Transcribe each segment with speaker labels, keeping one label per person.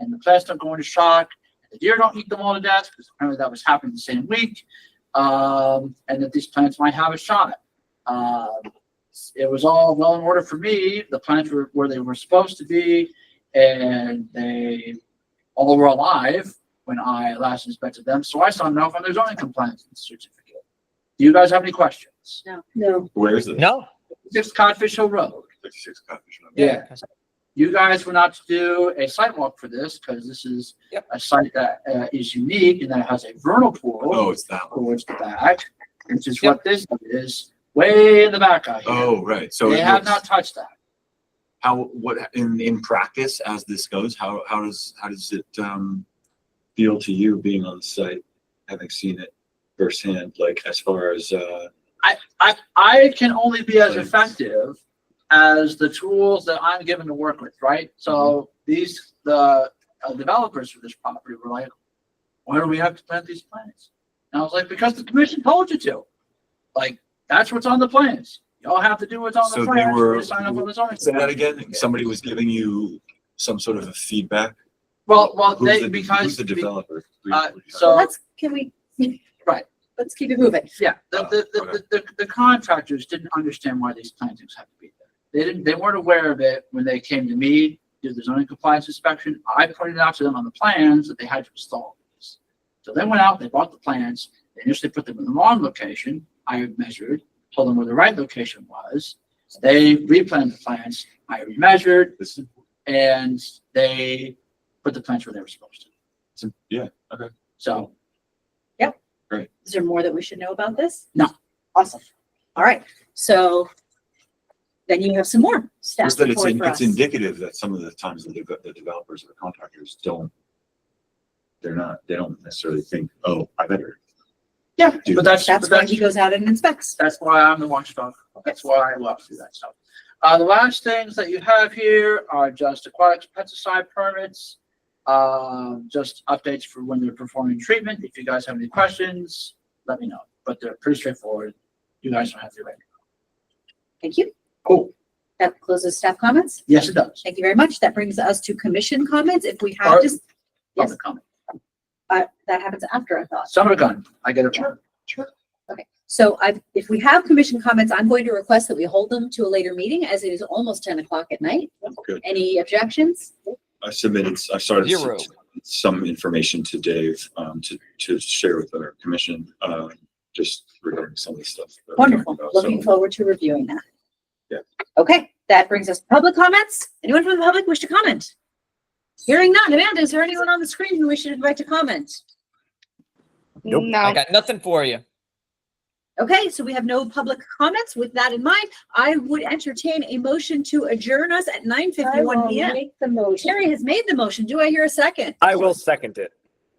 Speaker 1: and the plants are going to shock. The deer don't eat them all to death because apparently that was happening the same week. Um, and that these plants might have a shot. Uh, it was all well in order for me. The plants were where they were supposed to be and they all were alive when I last inspected them. So I saw no from their zoning compliance certificate. Do you guys have any questions?
Speaker 2: No,
Speaker 3: Where is it?
Speaker 4: No.
Speaker 1: Six Codfish Hill Road.
Speaker 3: Six copies.
Speaker 1: Yeah. You guys were not to do a sidewalk for this because this is
Speaker 4: Yep.
Speaker 1: a site that uh, is unique and that has a vernal
Speaker 3: Oh,
Speaker 1: pool
Speaker 3: it's that one.
Speaker 1: towards the back, which is what this is, way in the back out here.
Speaker 3: Oh, right. So
Speaker 1: They
Speaker 3: it
Speaker 1: have
Speaker 3: looks,
Speaker 1: not touched that.
Speaker 3: how, what, in, in practice, as this goes, how, how does, how does it, um, feel to you being on site, having seen it firsthand, like as far as, uh,
Speaker 1: I, I can only be as
Speaker 3: Right.
Speaker 1: effective as the tools that I'm given to work with, right? So
Speaker 3: Mm-hmm.
Speaker 1: these, the uh, developers for this property were like, why do we have to plant these plants? And I was like, because the commission told you to. Like, that's what's on the plans. Y'all have to do what's on the
Speaker 3: So they
Speaker 1: plans.
Speaker 3: were-
Speaker 1: You Sign up on the zoning.
Speaker 3: say that
Speaker 1: plan.
Speaker 3: again? Somebody was giving you some sort of a feedback?
Speaker 1: Well, well,
Speaker 3: Who's
Speaker 1: they,
Speaker 3: the- Who's
Speaker 1: because,
Speaker 3: the developer?
Speaker 1: uh,
Speaker 3: Briefly.
Speaker 1: so-
Speaker 2: let's, can we?
Speaker 1: Right.
Speaker 2: Let's keep it moving.
Speaker 1: yeah, the,
Speaker 3: Oh,
Speaker 1: the,
Speaker 3: okay.
Speaker 1: the, the, the contractors didn't understand why these plantings had to be there. They didn't, they weren't aware of it when they came to me, did the zoning compliance inspection. I pointed out to them on the plans that they had to install these. So they went out, they bought the plans, they initially put them in the wrong location. I measured, told them where the right location was. They replanted the plants, I remeasured,
Speaker 3: This is-
Speaker 1: and they put the plants where they were supposed to.
Speaker 3: it's- Yeah, okay.
Speaker 1: So
Speaker 2: Is there more that we should know about this?
Speaker 1: No.
Speaker 2: Awesome. All right, so then you have some more staff
Speaker 3: Just that it's,
Speaker 2: report
Speaker 3: in-
Speaker 2: for
Speaker 3: it's
Speaker 2: us.
Speaker 3: indicative that some of the times the deve- the developers or the contractors don't, they're not, they don't necessarily think, oh, I better.
Speaker 1: Yeah,
Speaker 3: do
Speaker 1: but
Speaker 3: that."
Speaker 1: that's,
Speaker 2: That's
Speaker 1: but
Speaker 2: why
Speaker 1: that's,
Speaker 2: he goes out and inspects.
Speaker 1: that's why I'm the watchdog. That's why I love to do that stuff. Uh, the last things that you have here are just aquatic pesticide permits. Uh, just updates for when they're performing treatment. If you guys have any questions, let me know, but they're pretty straightforward. You guys don't have to wait.
Speaker 2: Thank you.
Speaker 1: Cool.
Speaker 2: That closes staff comments.
Speaker 1: Yes, it does.
Speaker 2: Thank you very much. That brings us to commission comments. If we have
Speaker 1: Or-
Speaker 2: just, Yes.
Speaker 1: Public comment.
Speaker 2: uh, that happens after, I thought.
Speaker 1: Summer gun, I get it. wrong.
Speaker 2: Okay, so I, if we have commission comments, I'm going to request that we hold them to a later meeting as it is almost ten o'clock at night.
Speaker 3: Good.
Speaker 2: Any objections?
Speaker 3: I submitted, I started
Speaker 4: Zero.
Speaker 3: some information to Dave, um, to, to share with our commission, uh, just regarding some of the stuff. that we're talking
Speaker 2: Wonderful.
Speaker 3: about. So,
Speaker 2: Looking forward to reviewing that.
Speaker 3: Yeah.
Speaker 2: Okay, that brings us to public comments. Anyone from the public wish to comment? Hearing none. Amanda, is there anyone on the screen who wishes like to comment?
Speaker 4: Nope.
Speaker 5: No.
Speaker 4: I got nothing for you.
Speaker 2: Okay, so we have no public comments. With that in mind, I would entertain a motion to adjourn us at nine fifty-one PM.
Speaker 6: Make the motion.
Speaker 2: Terry has made the motion. Do I hear a second?
Speaker 7: I will second it.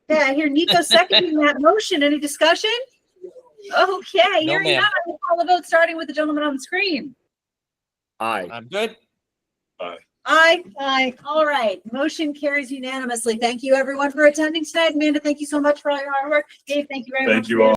Speaker 2: Okay, I hear Nico seconding that motion. Any discussion? Okay, hearing
Speaker 4: ma'am.
Speaker 2: none. I will call the vote, starting with the gentleman on the screen.
Speaker 7: Aye.
Speaker 4: I'm good.
Speaker 2: Aye. Aye. All right, motion carries unanimously. Thank you, everyone, for attending tonight. Amanda, thank you so much for all your hard work. Dave, thank you very much.
Speaker 3: Thank
Speaker 2: for
Speaker 3: you
Speaker 2: your-
Speaker 3: all.